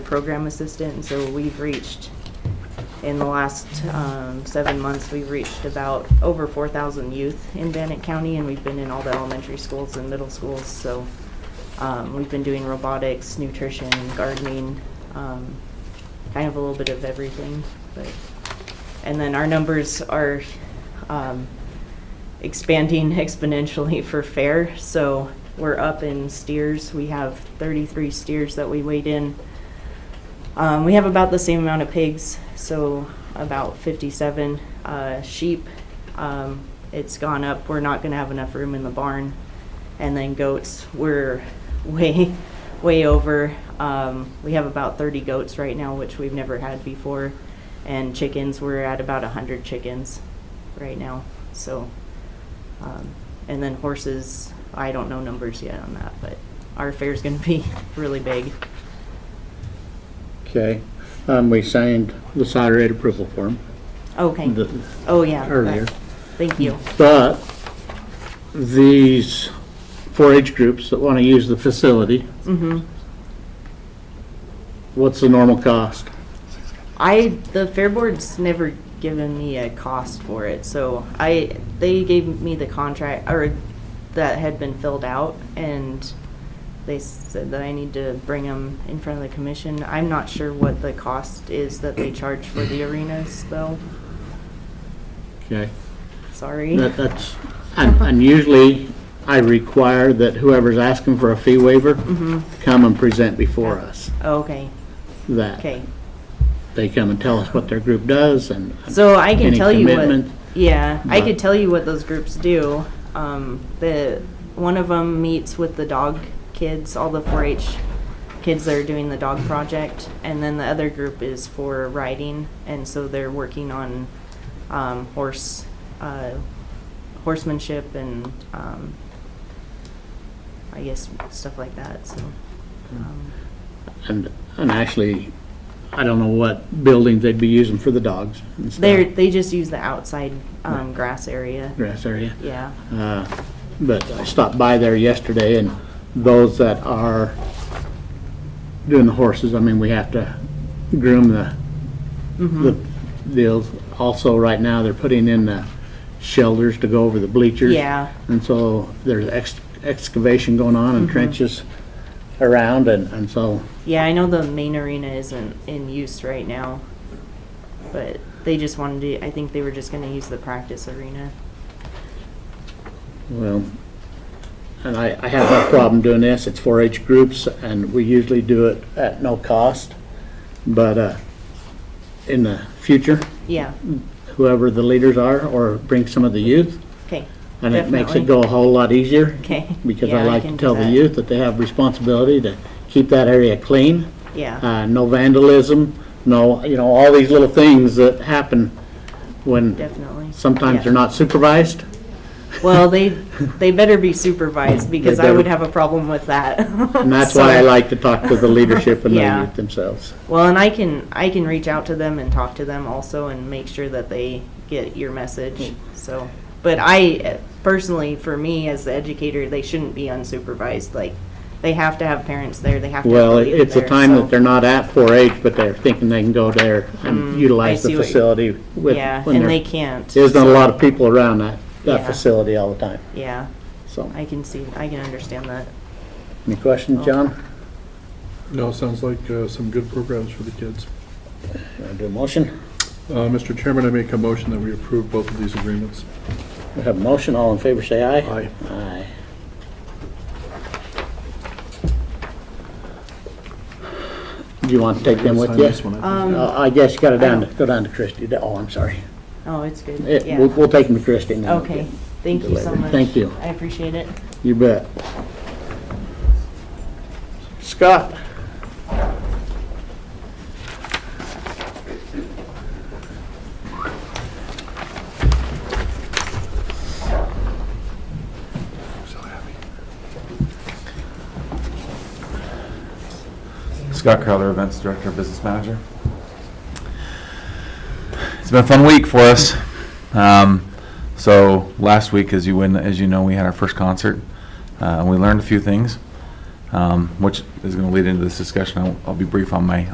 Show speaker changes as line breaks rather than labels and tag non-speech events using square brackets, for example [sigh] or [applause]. program assistant, and so we've reached, in the last um, seven months, we've reached about over 4,000 youth in Bannock County, and we've been in all the elementary schools and middle schools, so um, we've been doing robotics, nutrition, gardening, um, kind of a little bit of everything, but, and then our numbers are um, expanding [laughs] exponentially for fair. So we're up in steers. We have 33 steers that we weighed in. Um, we have about the same amount of pigs, so about 57 uh, sheep. Um, it's gone up. We're not going to have enough room in the barn. And then goats, we're [laughs] way, way over. Um, we have about 30 goats right now, which we've never had before. And chickens, we're at about 100 chickens right now. So, um, and then horses, I don't know numbers yet on that, but our fair's going to be [laughs] really big.
Okay, um, we signed the salary rate approval form
Okay.
the-
oh, yeah. that-
earlier,
Thank you.
but these 4-H groups that want to use the facility,
Mm-hmm.
what's the normal cost?
I the fair board's never given me a cost for it, so I they gave me the contract or that had been filled out, and they said that I need to bring them in front of the commission. I'm not sure what the cost is that they charge for the arenas, though.
Okay,
Sorry.
that, that's, and
Uh-huh.
and usually I require that whoever's asking for a fee waiver
Mm-hmm.
come and present before us,
Oh, okay.
that
Okay.
they come and tell us what their group does and,
So I can
Any
tell you what.
commitment?
Yeah, I
But-
could tell you what those groups do. Um, the one of them meets with the dog kids, all the 4-H kids that are doing the dog project, and then the other group is for riding, and so they're working on um, horse uh, horsemanship and um, I guess stuff like that. So. Um,
and, and actually, I don't know what building they'd be using for the dogs and stuff.
they they just use the outside um, grass area.
Grass area.
Yeah.
Uh, But I stopped by there yesterday, and those that are doing the horses, I mean, we have to groom the, the deals. Also, right now, they're putting in the shelters to go over the bleachers.
Yeah.
And so there's ex- excavation going on and trenches around, and, and so,
Yeah, I know the main arena isn't in use right now, but they just wanted to, I think they were just gonna use the practice arena.
well, and I, I have no problem doing this. It's 4-H groups, and we usually do it at no cost. But, uh, in the future,
Yeah,
Hmm. whoever the leaders are, or bring some of the youth.
okay,
And it makes
Definitely.
it go a whole lot easier,
okay.
because
Yeah,
I like
can
to
do
tell the
that.
youth that they have responsibility to keep that area clean,
Yeah,
uh, no vandalism, no, you know, all these little things that happen when
definitely.
sometimes
Yeah.
they're not supervised.
Well, they, they better be supervised, because I
better-
would have a problem with that.
And that's why
[laughs]
I
So-
like to talk to the leadership
[laughs]
and the
Yeah.
youth themselves.
Well, and I can, I can reach out to them and talk to them also and make sure that they get your message, so. But I, uh, personally, for me, as the educator, they shouldn't be unsupervised, like, they have to have parents there, they have to have
Well,
a
it-
leader
it's a
there,
time
so-
that they're not at 4-H, but they're thinking they can go there and utilize
Mm, see
the
what you-
facility with,
Yeah,
when
and they
there
can't,
isn't a lot of people around that,
Yeah.
that facility all the time,
yeah,
so.
I can see, I can understand that.
Any questions, John?
No, sounds like uh, some good programs for the kids.
Want to do a motion?
Uh, Mr. Chairman, I make a motion that we approve both of these agreements.
We have a motion, all in favor, say aye.
Aye.
Aye. Do you want to take them with
Sign
you?
this one, I think.
Um,
Uh, I guess you gotta down, to- go down to Christie, oh, I'm sorry.
Oh, it's good,
It-
yeah,
Eh, We'll, we'll take them to Christie now.
okay, thank you so
Delivered.
much.
Thank you.
I appreciate it.
You bet. Scott?
Scott Crowther, Events Director, Business Manager. It's been a fun week for us. Um, so last week, as you win, as you know, we had our first concert, uh, and we learned a few things, um, which is going to lead into this discussion. I'll, I'll be brief on my